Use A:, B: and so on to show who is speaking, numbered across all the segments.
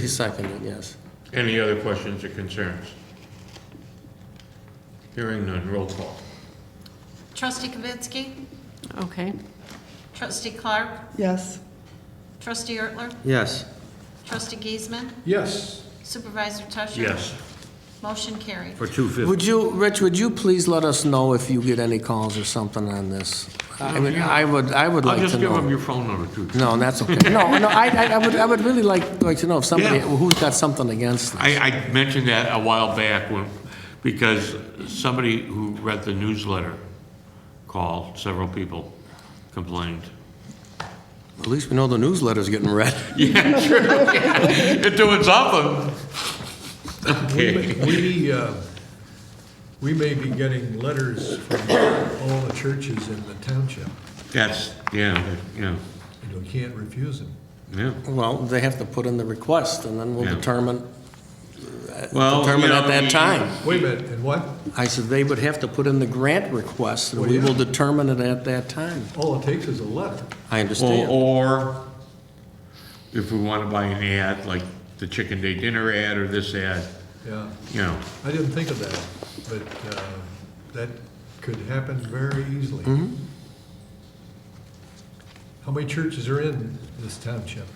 A: He seconded, yes.
B: Any other questions or concerns? Hearing none, roll call.
C: Trustee Kavitsky?
D: Okay.
C: Trustee Clark?
E: Yes.
C: Trustee Ertler?
A: Yes.
C: Trustee Giesman?
F: Yes.
C: Supervisor Tusher?
B: Yes,
C: Motion carried.
B: for 250.
A: Would you, Rich, would you please let us know if you get any calls or something on this? I mean, I would, I would
B: I'll
A: like to
B: just give them
A: know.
B: your phone number, too.
A: No, that's okay. No, no, I, I- I would, I would really like, like to know if somebody,
B: Yeah.
A: who's got something against it.
B: I, I mentioned that a while back when, because somebody who read the newsletter called, several people complained.
A: At least we know the newsletter's getting read.
B: Yeah, true. It doing something. Okay.
F: We, uh, we may be getting letters from all the churches in the township,
B: That's, yeah, yeah,
F: and we can't refuse them.
B: yeah.
A: Well, they have to put in the request, and then we'll
B: Yeah.
A: determine,
B: Well, you
A: determine
B: know,
A: at
B: you-
A: that time.
F: Wait a minute, and what?
A: I said they would have to put in the grant request, and
F: Well,
A: we
F: yeah.
A: will determine it at that time.
F: All it takes is a letter.
A: I
B: Or,
A: understand.
B: or if we want to buy an ad, like the chicken day dinner ad or this ad,
F: Yeah,
B: you know,
F: I didn't think of that, but uh, that could happen very easily. How many churches are in this township?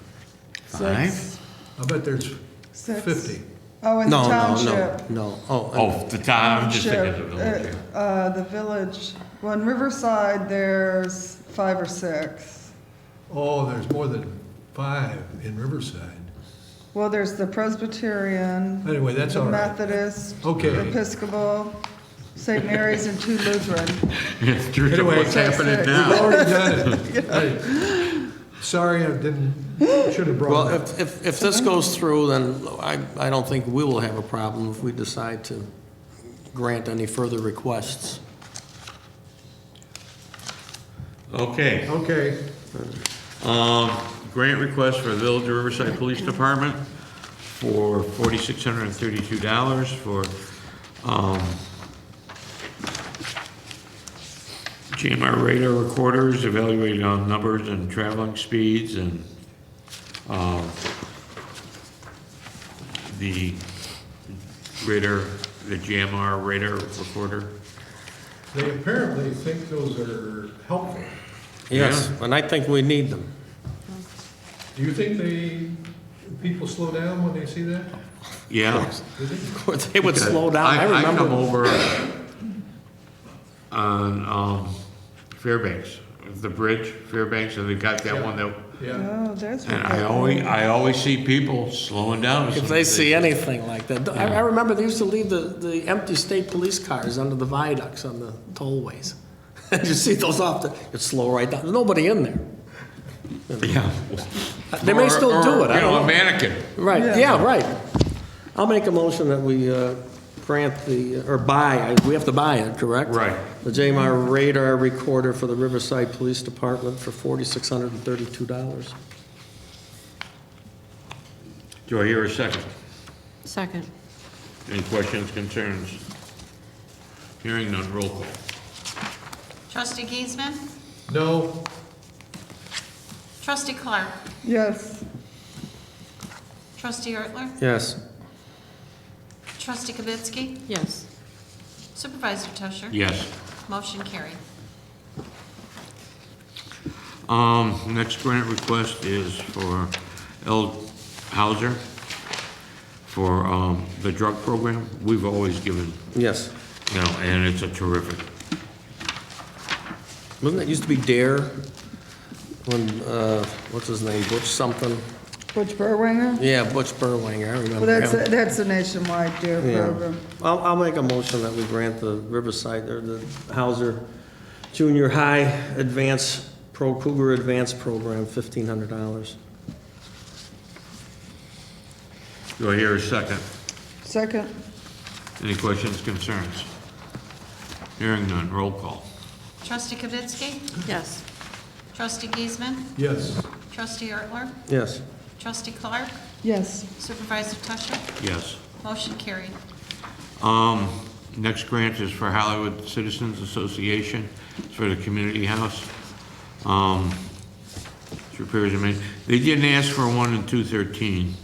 B: five?
F: I bet there's
E: Six.
F: fifty.
E: Oh, in the
A: No, no, no,
E: township.
A: no. Oh,
B: Oh, the town, I'm just thinking of the
E: Township,
B: village.
E: uh, uh, the village, well, in Riverside, there's five or six.
F: Oh, there's more than five in Riverside.
E: Well, there's the Presbyterian.
F: Anyway, that's all
E: The
F: right.
E: Methodist.
F: Okay.
E: Episcopal, St. Mary's, and two Lutheran.
B: It's true to
F: Anyway,
B: what's happening
E: six.
F: We've
B: now.
F: already done it. Hey, Sorry, I didn't, should have
A: well,
F: brought it up.
A: if, if, if this goes through, then I, I don't think we will have a problem if we decide to grant any further requests.
B: Okay,
F: Okay,
B: um, grant request for Village of Riverside Police Department for forty-six hundred and thirty-two dollars for, um, GMR radar recorders evaluated on numbers and traveling speeds and, um, the radar, the GMR radar recorder.
F: they apparently think those are helpful.
A: Yes,
B: Yeah.
A: and I think we need them.
F: Do you think they, people slow down when they see that?
B: Yeah.
F: Do they?
A: Of course, They would slow down. I
B: come
A: remember,
B: over on um, Fairbanks, the bridge, Fairbanks, and they got that one that,
F: Yeah,
E: Oh, there's.
B: and I always, I always see people slowing down. as
A: if
B: soon
A: they
B: as
A: see anything like that. I, I remember they used to leave the, the empty state police cars under the viaducts on the tollways. And you see those off, the- it'd slow right down. There's nobody in there.
B: Yeah.
A: They may
B: Or-
A: still do
B: or,
A: it, I
B: You
A: don't
B: know, a
A: know.
B: mannequin.
A: Right,
E: Yeah.
A: yeah, right. I'll make a motion that we uh, grant the, uh, or buy, I- we have to buy it, correct?
B: Right.
A: The JMR radar recorder for the Riverside Police Department for $4,632.
B: Do I hear a second?
D: Second.
B: Any questions, concerns? Hearing none, roll call.
C: Trustee Giesman?
F: no,
C: Trustee Clark?
E: Yes,
C: Trustee Ertler?
A: Yes.
C: Trustee Kavitsky?
D: Yes.
C: Supervisor Tusher?
B: Yes.
C: Motion carried.
B: Um, next grant request is for L. Hauser for, um, the drug program. We've always given,
A: Yes.
B: you know, and it's a terrific,
A: Wasn't that used to be DARE? When, uh, what's his name, Butch something?
E: Butch Burwanger?
A: Yeah, Butch Burwanger, I
E: Well,
A: remember
E: that's,
A: him.
E: a- that's a nationwide deer
A: Yeah.
E: program.
A: I'll, I'll make a motion that we grant the Riverside, or the Hauser Junior High Advance, Pro Cougar Advance Program, fifteen hundred dollars.
B: do I hear a second?
E: Second,
B: Any questions, concerns? Hearing none, roll call.
C: Trustee Kavitsky?
D: Yes.
C: Trustee Giesman?
F: yes,
C: Trustee Ertler?
A: Yes.
C: Trustee Clark?
E: yes,
C: Supervisor Tusher?
B: Yes.
C: Motion carried.
B: Um, next grant is for Hollywood Citizens Association, it's for the community house. Um, it's repairs and main, they didn't ask for one in two thirteen.